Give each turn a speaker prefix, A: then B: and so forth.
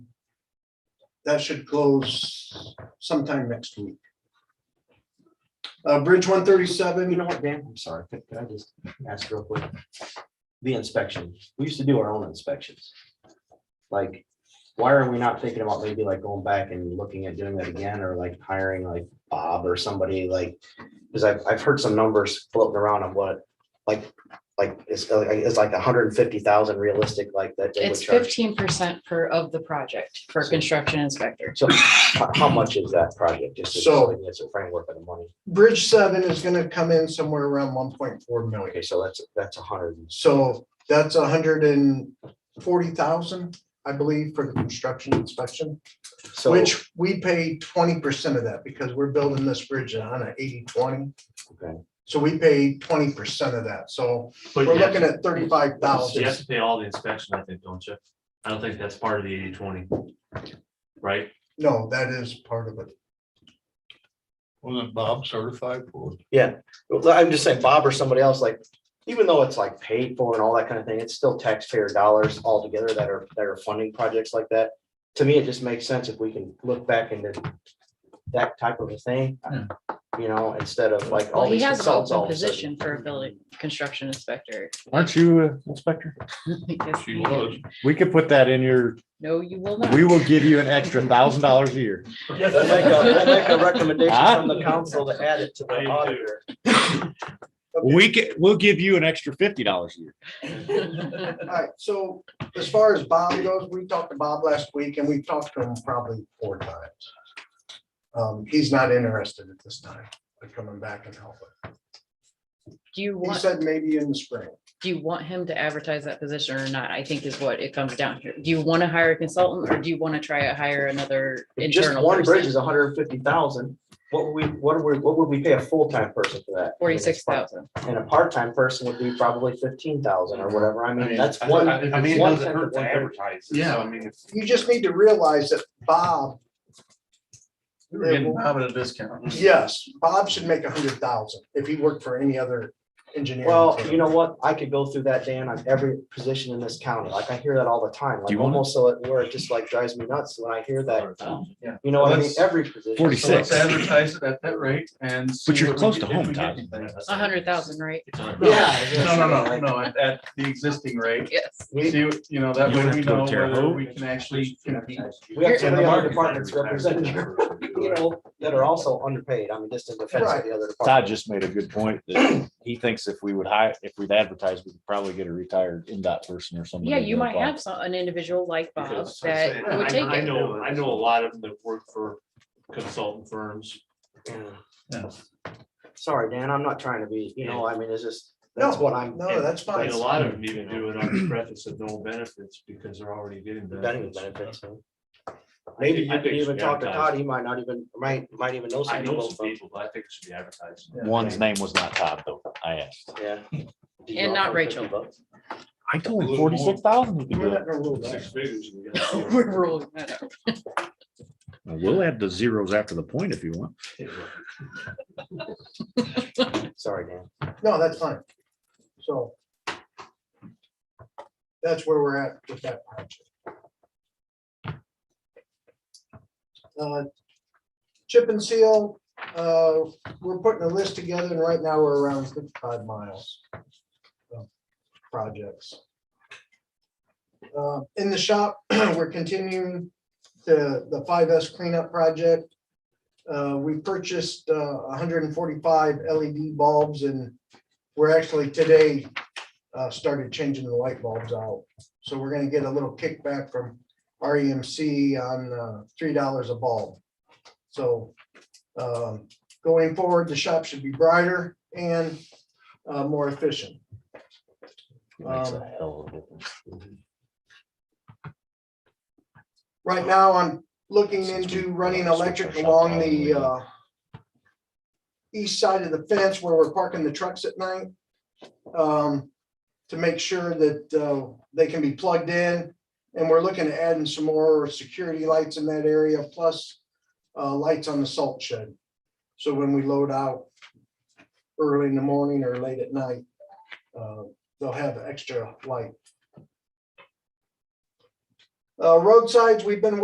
A: That should close sometime next week. Uh, Bridge one
B: You
A: thirty-seven,
B: know what, Dan, I'm sorry, could could I just ask real quick? The inspection, we used to do our own inspections. Like, why are we not thinking about maybe like going back and looking at doing that again, or like hiring like Bob or somebody like? Because I've, I've heard some numbers floating around of what, like, like, it's, it's like hundred and fifty thousand realistic, like that. they would
C: It's
B: charge.
C: fifteen percent per of the project for a construction inspector.
B: So how how much is that project? Just
A: So-
B: so it's a framework of the money.
A: Bridge seven is gonna come in somewhere around one point four million.
B: Okay, so that's, that's a hundred. and-
A: So that's hundred and forty thousand, I believe, for the construction inspection,
B: So,
A: which we pay twenty percent of that because we're building this bridge on a 80-20.
B: Okay.
A: So we pay twenty percent of that. So
D: But
A: we're
D: you have
A: looking at thirty-five
D: to- you have
A: thousand.
D: to pay all the inspection, I think, don't you? I don't think that's part of the eighty twenty. Right?
A: No, that is part of it.
E: Wasn't Bob certified for? it?
B: yeah, Well, I'm just saying Bob or somebody else, like, even though it's like paid for and all that kind of thing, it's still taxpayer dollars altogether that are, that are funding projects like that. To me, it just makes sense if we can look back into that type of a thing, you know, instead of like all
C: Well, he
B: these
C: has an
B: consultants. all
C: open
B: of a sudden.
C: position for a building construction inspector.
F: Aren't you uh, inspector?
C: Yes,
E: She
C: you
E: was.
C: do.
F: We could put that in your,
C: No, you will not.
F: we will give you an extra thousand dollars a year.
B: I'd like a-
G: uh,
B: I'd like a recommendation
F: Huh?
B: from the council to add it to
D: I do
B: the
D: too.
B: auditor.
F: We can, we'll give you an extra fifty dollars a year.
A: All right, so as far as Bob goes, we talked to Bob last week and we've talked to him probably four times. Um, he's not interested at this time, like coming back and helping.
C: Do
A: He
C: you want,
A: said maybe in the spring.
C: do you want him to advertise that position or not? I think is what it comes down to. Do you want to hire a consultant or do you want to try to hire another
B: If Just
C: internal
B: one bridge
C: person?
B: is hundred and fifty thousand. What would we, what would we, what would we pay a full-time person for that?
C: Forty-six thousand.
B: And a part-time person would be probably fifteen thousand or whatever. I
G: I
B: mean,
G: mean,
B: that's
G: I-
B: one.
G: I I mean, it
B: one
G: doesn't
B: tenth of
G: hurt to
B: one average.
G: advertise. it, so,
E: Yeah.
G: I mean, it's.
A: You just need to realize that Bob,
G: we were getting Bob at a discount.
A: yes, Bob should make a hundred thousand if he worked for any other engineer.
B: Well, you know what? I could go through that, Dan, on every position in this county. Like, I hear that all the time,
F: Do
B: like
F: you want it?
B: almost so it, where it just like drives me nuts when I hear that.
G: Yeah.
B: You know, what I mean,
G: Let's-
B: every position.
G: So
F: 46.
G: let's advertise it at that rate and. see
F: But you're
G: what we
F: close
G: get-
F: to
G: if
F: home,
G: we get
F: Todd.
G: anything.
C: A hundred thousand, right?
D: It's on-
B: Yeah.
G: No, no, no, no, at, at the existing rate.
C: Yes.
B: We,
G: See, what- you know, that
F: You
G: way
F: don't
G: we
F: have to go
G: know
F: Terre
G: whether
F: Haute.
G: we can actually compete.
B: we have so
G: in the
B: many other
G: market.
B: departments represented, here, you know, that are also underpaid. I mean, just in defense of the other
F: Todd
B: departments.
F: just made a good point that he thinks if we would hire, if we'd advertise, we could probably get a retired NDOT person or somebody.
C: Yeah, you
F: to
C: might
F: apply.
C: have some, an individual like Bob
G: Because I say-
C: uh, that would
D: I
C: take
D: I
C: it.
D: know, I know a lot of them that work for consultant firms.
B: Yeah.
G: Yeah.
B: Sorry, Dan, I'm not trying to be, you know, I mean, it's just,
A: No,
B: that's what I'm.
A: No, that's
D: And
A: fine.
D: a lot of them even do it on the preface of no benefits because they're already getting
B: That even
D: benefits.
B: benefits. so.
D: I
B: Maybe
D: think-
B: you
D: I
B: could
D: think it
B: even
D: should be
B: talk to Todd,
D: advertised.
B: he might not even, might, might even know
D: I
B: some
D: know
B: people
D: some
B: from,
D: people, but I think it should be advertised.
F: One's name was not Todd, though. I asked.
B: yeah. Did you
C: And not
B: offer
C: Rachel.
B: 50 bucks?
F: I told him forty-six thousand. we could
A: We're
F: do it.
A: not gonna rule that.
D: Six figures. we
C: We're
D: got.
C: rolling that out.
F: We'll add the zeros after the point if you want.
B: Sorry, Dan.
A: No, that's fine. So that's where we're at with that project. Uh, Chip and seal, uh, we're putting a list together and right now we're around fifty-five miles of projects. Uh, In the shop, we're continuing the, the five S cleanup project. Uh, We purchased uh, hundred and forty-five LED bulbs and we're actually today uh, started changing the light bulbs out. So we're gonna get a little kickback from REMC on uh, three dollars a bulb. So um, going forward, the shop should be brighter and uh, more efficient.
F: Makes
A: Um,
F: a hell of a difference.
A: Right now, I'm looking into running electric along the uh, east side of the fence where we're parking the trucks at night. um, To make sure that uh, they can be plugged in. And we're looking at adding some more security lights in that area, plus uh, lights on the salt shed. So when we load out early in the morning or late at night, uh, they'll have extra light. Uh, Roadsides, we've been